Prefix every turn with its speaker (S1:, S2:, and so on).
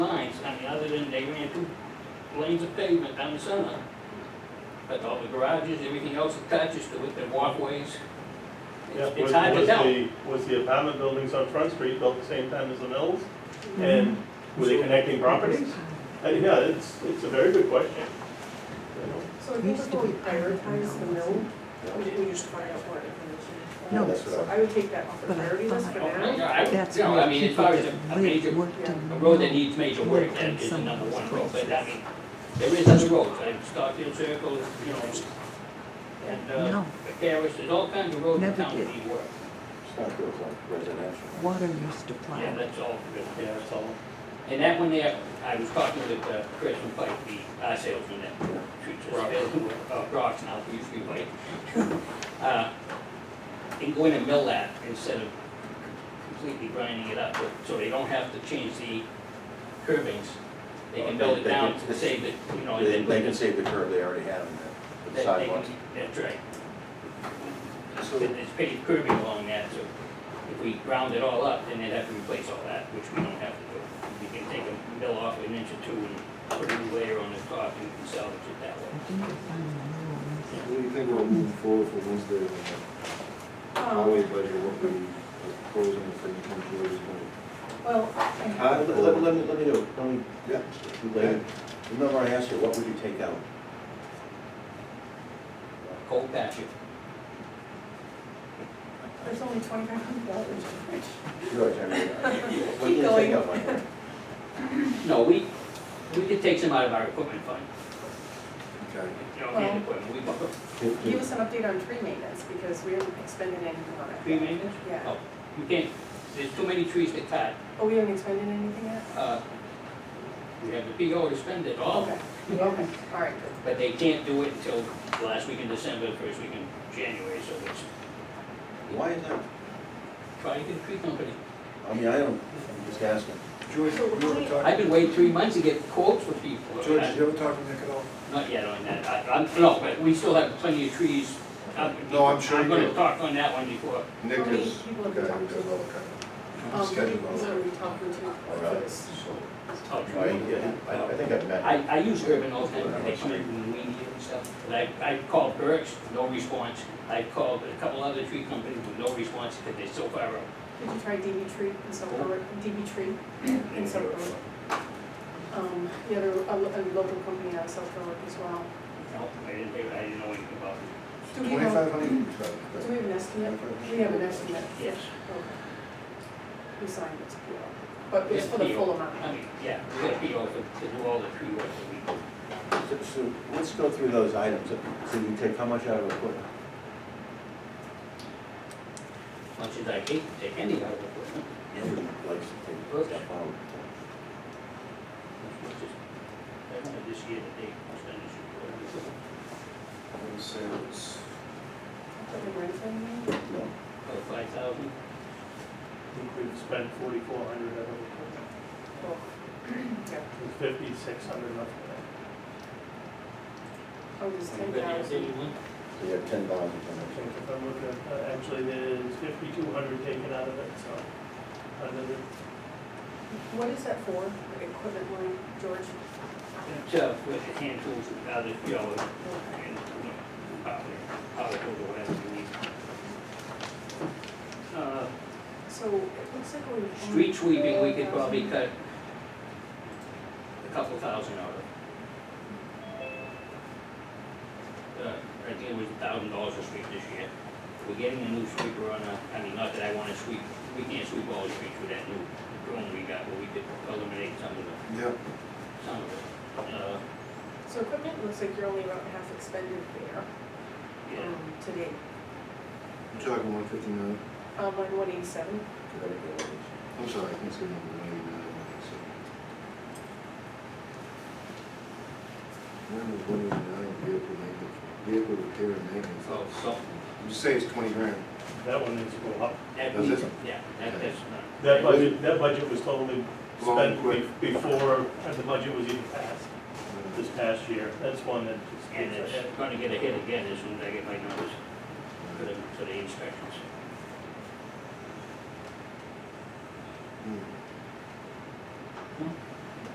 S1: lanes of pavement down the center. But all the garages, everything else attaches to it, the walkways. It's it's
S2: Was-
S1: hard to
S2: was
S1: tell.
S2: the- Was the apartment buildings on Front Street built at the same time as the mills? And were they
S1: So-
S2: connecting properties? And yeah, it's, it's a very good question. You know,
S3: So I think before we prioritize the mill, we should- we just find out more information.
S4: No.
S2: that's
S3: So
S2: what
S3: I would take that off the
S4: But I-
S3: priority list for
S1: Oh,
S3: now. Um,
S1: yeah, I-
S4: That's
S1: You know,
S4: where
S1: I mean, as
S4: people
S1: far as
S4: that
S1: a a major,
S4: live, worked and.
S1: a road that
S4: worked.
S1: needs major work, that is the
S4: Some
S1: number one road,
S4: places.
S1: but I mean, there is other roads, like Stockfield Circle, you know, and, uh,
S4: No.
S1: Paris, there's all kinds of roads in
S4: Never
S1: town that
S4: did.
S1: need work.
S5: It's not built like residential.
S4: Water used to
S1: Yeah,
S4: plow.
S1: that's all. good.
S2: Yeah, it's all.
S1: And that one there, I was talking with uh, Chris and Pike, the uh, salesman that shoots us, uh, rocks now, who used to be Pike. Uh, And going to mill that instead of completely grinding it up, so they don't have to change the curvings. They can build it down to save it, you know, and
S5: They,
S1: then.
S5: they can save the curb they already have in the-
S1: they-
S5: the
S1: they
S5: sidewalks.
S1: can- That's right. And It's paved curving along that, so if we ground it all up, then they'd have to replace all that, which we don't have to do. We can take a mill off an inch or two and put a new layer on the top and we can salvage it that way.
S4: I think they found the new ones.
S6: What do you think we'll move forward for Wednesday, when the highway
S3: Um,
S6: budget, what we are proposing for income is gonna?
S3: Well,
S5: Uh, let, let, let me, let me know, let me,
S6: Yeah.
S5: Lynn, remember I asked you, what would you take out?
S1: Cold patch it.
S3: there's only twenty-five hundred dollars.
S5: George, I mean, I-
S3: Keep
S5: what did you
S3: going.
S5: take out, Michael?
S1: No, we, we could take some out of our equipment fund,
S6: Okay.
S1: you know, hand equipment, we bought
S3: Give us an update on tree maintenance, because we haven't expended anything on it.
S1: tree maintenance.
S3: Yeah,
S1: Oh, you can't, there's too many trees to cut.
S3: oh, we haven't expended anything yet?
S1: Uh, We have the PO to spend it all,
S3: Okay, okay, all right, good.
S1: but they can't do it until last week in December, first week in January, so it's
S5: Why is that?
S1: try to get a tree company.
S5: I mean, I don't, I'm just asking.
S6: George, you ever
S1: I've
S6: talk,
S1: been waiting three months to get quotes for people.
S6: George, did you ever talk to Nick at all?
S1: Not yet on that, I, I'm, no, but we still have plenty of trees. out.
S6: No, I'm sure
S1: I'm
S6: you
S1: gonna
S6: do.
S1: talk on that one before,
S6: Nick
S3: How many
S6: is,
S3: people have
S6: okay,
S3: you
S6: we
S3: talked
S6: got
S3: to?
S6: another kind
S3: Um,
S6: of
S3: who
S6: schedule.
S3: are we talking to?
S5: Alright.
S1: I'll
S5: I,
S1: try.
S5: I I think I've met.
S1: Oh, I, I use urban all the time, they come in and weed it and stuff, but I, I called Burke's, no response. I called a couple other tree companies with no response, because they're so far out.
S3: Did you try DB Tree in Silver, DB Tree in Silver? Um, the other, a lo- a local company out of South Berwick as well.
S1: No, I didn't, hear- I didn't know anything about it.
S3: Do we have,
S6: Twenty-five hundred, you said,
S3: do
S6: that's-
S3: we have an estimate? We have an estimate.
S1: Yes.
S3: Okay. We signed it, but it's for the full amount.
S1: I mean, yeah, we gotta be open to do all the tree work that we do.
S5: So, so let's go through those items. So you take how much out of equipment?
S1: Much as I hate to take any out of equipment,
S5: Nobody likes to take stuff out.
S1: which is, I wanted this year to date, I spent this year.
S6: I would say it's-
S3: Put the rent in there?
S5: No.
S1: About five thousand,
S2: I think we've spent forty-four hundred out of it,
S3: Well, yeah.
S2: with fifty-six hundred left. in
S3: Oh, it's ten
S1: anybody else,
S3: thousand.
S1: anyone?
S5: So you have ten thousand
S2: it. I think if I'm looking, at- uh, actually, there's fifty-two hundred taken out of it, so. under the-
S3: What is that for, the equipment line, George?
S1: So, with the hand tools and other, you know, and, you know, power, power tools or whatever you need. Uh,
S3: So it looks like we're.
S1: Street sweeping, we could probably cut a couple thousand out of. Uh, I think it was a thousand dollars a sweep this year. We're getting a new sweeper on a, I mean, not that I wanna sweep, we can't sweep all the streets with that new drone we got, but we could eliminate some of the,
S6: Yeah,
S1: some of it. Uh,
S3: So equipment looks like you're only about half expended there,
S1: yeah,
S3: um, today.
S6: you're talking one fifty-nine,
S3: Um, line one eighty-seven,
S6: I'm sorry, I think it's gonna be one eighty-nine, one eighty-seven. When was one eighty-nine, vehicle maintenance, vehicle repair and maintenance?
S1: so, so,
S6: You say it's twenty grand.
S2: That one needs to go up.
S1: That
S6: That's
S1: we,
S6: it?
S1: yeah, that, that's not.
S2: That budget, that budget was totally
S6: Long
S2: spent be-
S6: quick.
S2: before the budget was even passed this past year. That's one that just
S1: And
S2: gets
S1: it's
S2: ahead.
S1: gonna get a hit again as soon as I get my notice for the, for the inspections.
S6: Hmm.